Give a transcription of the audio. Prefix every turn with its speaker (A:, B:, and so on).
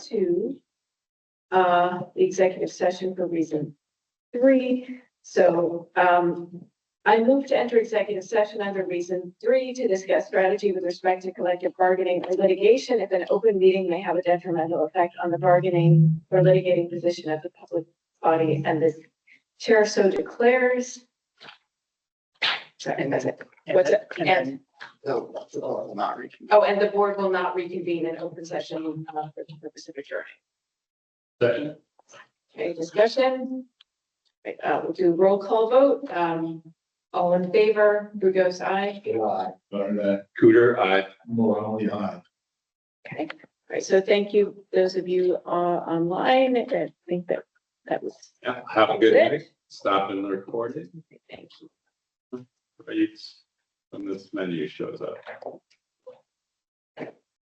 A: two. Uh, the executive session for reason three, so, um. I move to enter executive session under reason three to discuss strategy with respect to collective bargaining or litigation if an open meeting may have a detrimental effect on the bargaining or litigating position of the public body and the chair so declares. And that's it. What's it? And,
B: No, that's all, Oh, not reaching.
A: oh, and the board will not reconvene in open session uh, for the purpose of adjournment.
C: Second.
A: Okay, discussion. Right, uh, we'll do roll call vote. Um, all in favor, Brugos, aye.
B: July. uh,
C: Barnett. Cooter, I.
B: Morale, yeah.
A: Okay, all right, so thank you, those of you uh online. I think that that was.
C: Yeah, have a good night. Stop and record it.
A: Thank you.
C: Right, When this menu shows up.